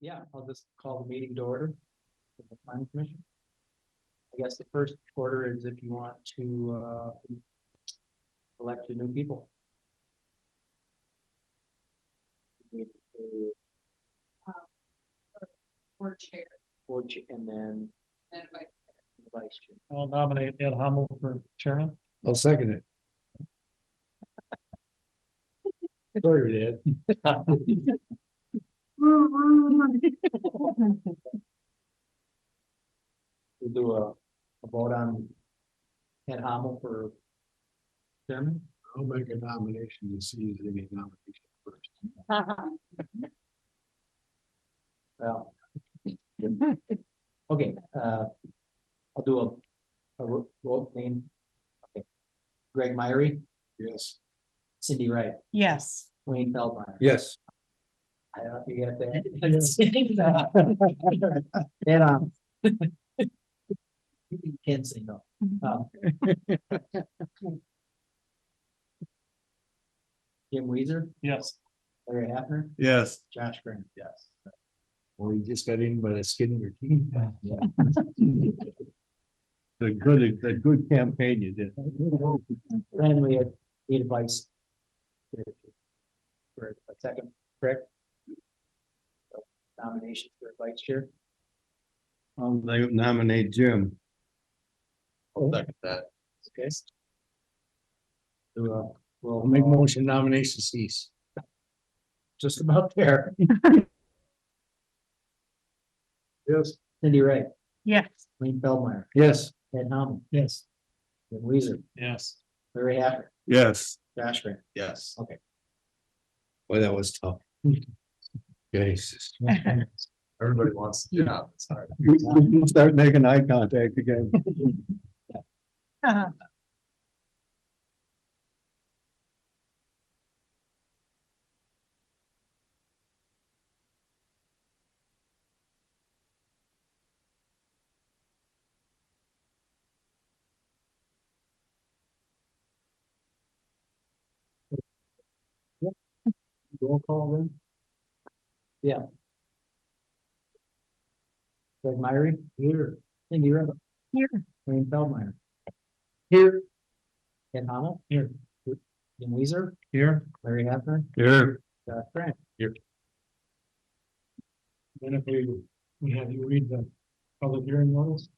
Yeah, I'll just call the meeting to order. for the planning commission. I guess the first order is if you want to, uh, elect the new people. board chair Board cha- and then and vice the vice chair. I'll nominate Ed Hamel for chairman. I'll second it. Sorry, Dad. We'll do a, a vote on Ed Hamel for chairman. I'll make a nomination to see if any nomination first. Well. Okay, uh, I'll do a, a ro- roll name. Okay. Greg Myrie, Yes. Cindy Wright, Yes. Wayne Feldmeyer. Yes. I don't know if you get that. Head on. You can't say no. Um, Jim Weezer, Yes. Larry Hapner, Yes. Josh Graham, yes. Well, you just got in by the skin of your teeth. Yeah. The good, the good campaign you did. Then we had need advice. For a second, correct? So, Nomination for vice chair. I'll nominate Jim. Oh, Second that. Okay. So, uh, I'll We'll make motion nomination cease. just about there. Yes. Cindy Wright, Yes. Wayne Feldmeyer, Yes. Ed Hamel, Yes. Jim Weezer, Yes. Larry Haffner, Yes. Josh Graham. Yes. Okay. Boy, that was tough. Jesus. Everybody wants. Yeah. Sorry. We we can start making eye contact again. Uh-huh. Roll call then? Yeah. Greg Myrie? Here. Cindy Ribbon? Here. Wayne Feldmeyer? Here. Ken Hamel? Here. Jim Weezer, Here, Larry Haffner, Here. Josh Grant. then if we, we have you read the public hearing notice.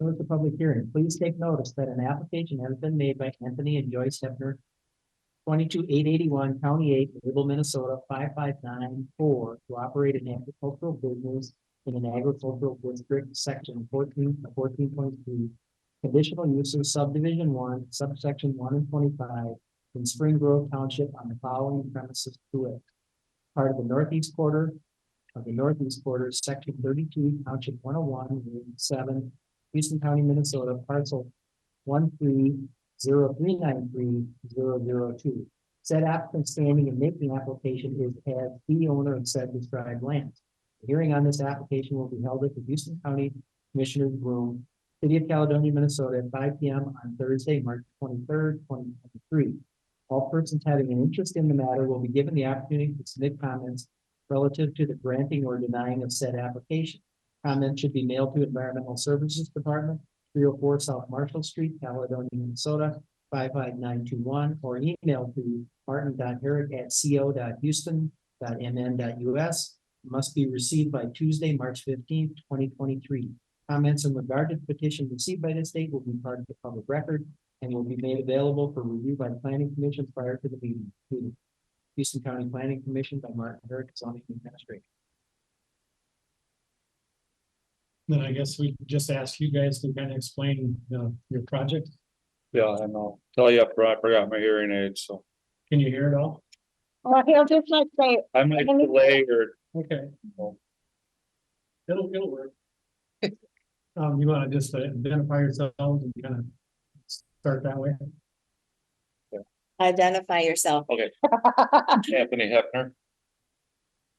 Notice the public hearing. Please take notice that an application has been made by Anthony and Joyce Hefner. Twenty-two eight eighty-one, County Eight, Little, Minnesota, five five nine four, to operate an agricultural business in an agricultural district, section fourteen, fourteen point three. Conditional uses subdivision one, subsection one and twenty-five in Spring Grove Township on the following premises to it. Part of the northeast quarter of the northeast quarter, section thirty-two, township one oh one, Route seven, Houston County, Minnesota, parcel one three zero three nine three zero zero two. Said applicant standing and making application is as the owner of said described land. The Hearing on this application will be held at the Houston County Commissioner's Room, City of Caledonia, Minnesota, at five P M on Thursday, March twenty-third, twenty twenty-three. All persons having an interest in the matter will be given the opportunity to submit comments relative to the granting or denying of said application. Comment should be mailed to Environmental Services Department, three oh four South Marshall Street, Caledonia, Minnesota, five five nine two one, or email to martin.herrick@co.houston.mn.us. Must be received by Tuesday, March fifteenth, twenty twenty-three. Comments in regard to the petition received by this date will be part of the public record and will be made available for review by the planning commission prior to the meeting. Houston County Planning Commission by Martin Herrick, zoning administrator. Then I guess we just ask you guys to kind of explain, uh, your project. Yeah, and I'll tell you up front, I forgot my hearing aid, so Can you hear it all? Well, he'll just like say, I might delay or Okay. It'll, it'll work. Um, you wanna just identify yourselves and kind of start that way? identify yourself. Anthony Hefner.